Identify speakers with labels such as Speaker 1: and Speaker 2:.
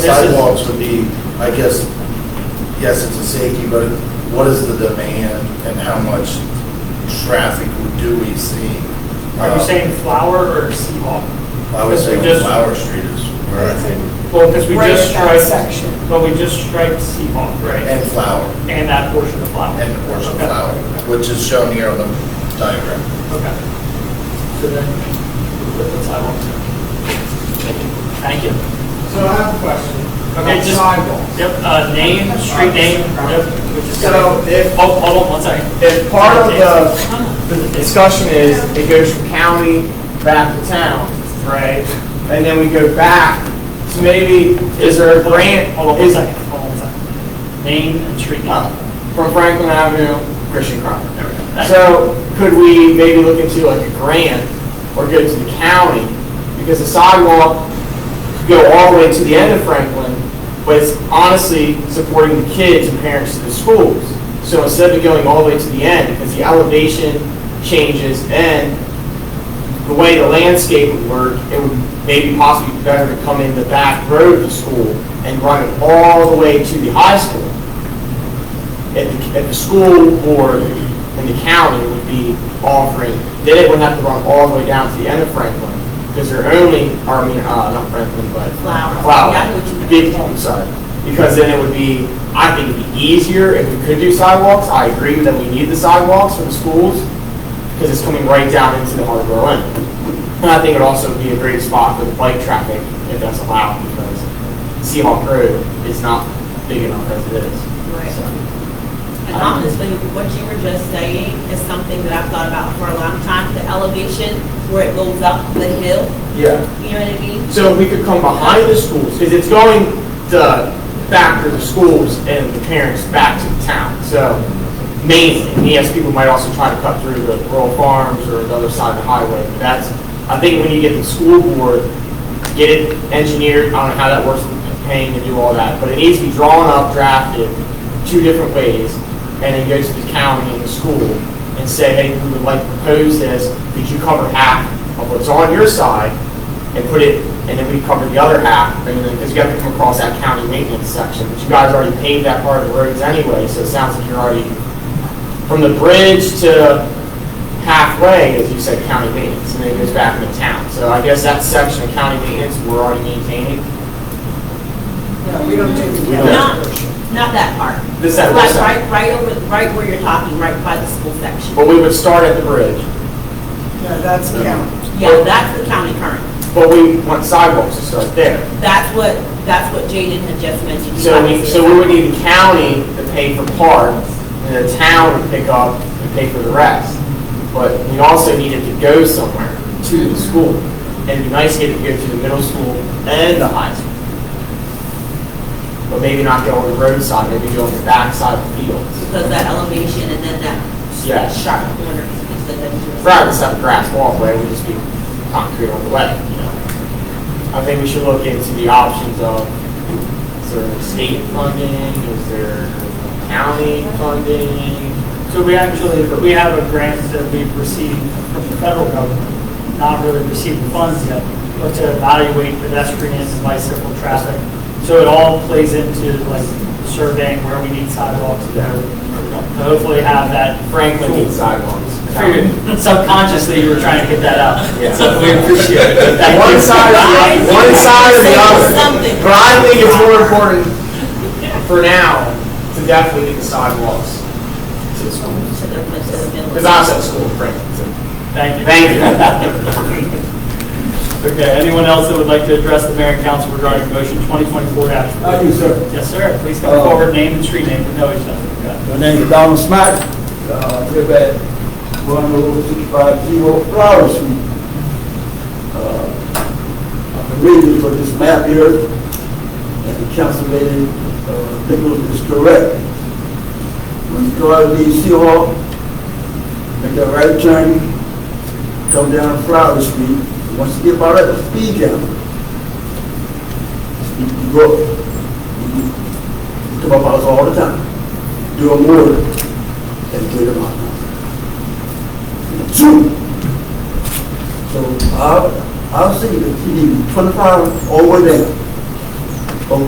Speaker 1: this is-
Speaker 2: sidewalks would be, I guess, yes, it's a safety, but what is the demand and how much traffic do we see?
Speaker 1: Are you
Speaker 2: Uh,
Speaker 1: saying flower or seawall?
Speaker 2: I would say
Speaker 1: Because we just-
Speaker 2: Flower Street is where I think,
Speaker 1: Well, because we
Speaker 3: Right
Speaker 1: just
Speaker 3: at that
Speaker 1: striped.
Speaker 3: section.
Speaker 1: But we just striped seawall, right?
Speaker 2: and Flower,
Speaker 1: And that portion of flower.
Speaker 2: and the portion of
Speaker 1: Okay.
Speaker 2: Flower, which is shown here on the diagram.
Speaker 1: Okay. So then, we'll put the sidewalks in. Thank you.
Speaker 4: So I have a question.
Speaker 1: Okay,
Speaker 4: About
Speaker 1: just,
Speaker 4: Sidewalks.
Speaker 1: yep, uh, name, street name, yep. which is-
Speaker 4: So if-
Speaker 1: Hold, hold on one second.
Speaker 4: If part of the the discussion is, it goes from county back to town,
Speaker 1: Right.
Speaker 4: and then we go back, so maybe, is there a grant?
Speaker 1: Hold on one
Speaker 4: is-
Speaker 1: second, hold on one second. Name and street
Speaker 4: uh,
Speaker 1: name.
Speaker 4: From Franklin Avenue, Christian Crocker.
Speaker 1: There we go.
Speaker 4: So could we maybe look into like a grant or go to the county? Because the sidewalk could go all the way to the end of Franklin, but it's honestly supporting the kids and parents to the schools. So instead of going all the way to the end, because the elevation changes and the way the landscape would work, it would maybe possibly be better to come in the back road of the school and run it all the way to the high school at the, at the school board and the county would be offering, then it would have to run all the way down to the end of Franklin, because they're only, or I mean, uh, not Franklin, but.
Speaker 3: Flower.
Speaker 4: Flower,
Speaker 3: Yeah, I know what you mean.
Speaker 4: Big, I'm sorry, because then it would be, I think it'd be easier if we could do sidewalks, I agree that we need the sidewalks for the schools, because it's coming right down into the heart of Berlin. And I think it'd also be a great spot for the bike traffic, if that's allowed, because Seahawk Road is not big enough as it is.
Speaker 5: Right.
Speaker 4: So.
Speaker 5: And honestly, what you were just saying is something that I've thought about for a long time, the elevation where it goes up the hill,
Speaker 4: Yeah.
Speaker 5: you know what I mean?
Speaker 4: So we could come behind the schools, because it's going to back to the schools and the parents back to the town, so mainly. And yes, people might also try to cut through the rural farms or the other side of the highway, but that's, I think when you get the school board, get it engineered, I don't know how that works, with paying to do all that, but it needs to be drawn up, drafted, two different ways, and then go to the county and the school and say, hey, we would like to propose this, could you cover half of what's on your side, and put it, and then we cover the other half, and then, because you have to come across that county maintenance section, but you guys already paved that part of the roads anyway, so it sounds like you're already, from the bridge to halfway, as you said, county maintenance, and then it goes back into town. So I guess that section of county maintenance, we're already maintaining.
Speaker 3: No, we don't do the
Speaker 2: We don't.
Speaker 5: Not,
Speaker 3: county.
Speaker 5: not that part.
Speaker 4: This side,
Speaker 5: Like
Speaker 4: this side. Oh.
Speaker 5: right, right over, right where you're talking, right by the school section.
Speaker 4: But we would start at the bridge,
Speaker 3: No, that's county.
Speaker 5: Yeah, that's the county current.
Speaker 4: but we want sidewalks to start there.
Speaker 5: That's what, that's what Jaden had just mentioned.
Speaker 4: So we, so we would need the county to pay for part, and the town would pick up and pay for the rest. But we also needed to go somewhere to the school. And it'd be nice to get it here to the middle school and the high school. But maybe not go on the roadside, maybe go on the backside of the fields.
Speaker 5: Because that elevation and then that
Speaker 4: Yeah.
Speaker 5: that sharp corner is the dangerous.
Speaker 4: Rather than have a grass walkway, would just be concrete on the way, you know? I think we should look into the options of, is there state funding, is there county funding?
Speaker 1: So we actually, we have a grant that we've received from the federal government, not really received funds yet, but to evaluate pedestrians and bicycle traffic. So it all plays into like surveying where we need sidewalks there. To hopefully have that.
Speaker 4: Franklin needs sidewalks.
Speaker 1: Figured Subconsciously, you were trying to get that
Speaker 4: Yeah.
Speaker 1: out. So we appreciate it. Thank
Speaker 4: One
Speaker 1: you.
Speaker 4: side or the other, one side or the other. But I think it's more important for now to definitely get the sidewalks to the schools.
Speaker 5: To the, to the middle.
Speaker 4: Because I was at school in Franklin, so.
Speaker 1: Thank you.
Speaker 4: Thank
Speaker 1: Okay, anyone else that would like to address the mayor and council regarding motion 2024 dash?
Speaker 6: I do, sir.
Speaker 1: Yes, sir. Please come forward, name and street name. We know each other. Yeah.
Speaker 6: My name is Donald Smack, uh, live at one oh six five zero Flower Street. Uh, I'm the reason for this map here, and the council lady, uh, Nichols is correct. When you go out of the Seahawk, make that right turn, come down Flower Street, once you get by that speed camera, you you go, you you come up out all the time do a word and get them out. Two. ah, So I'll, I'll see if you need twenty-five over there.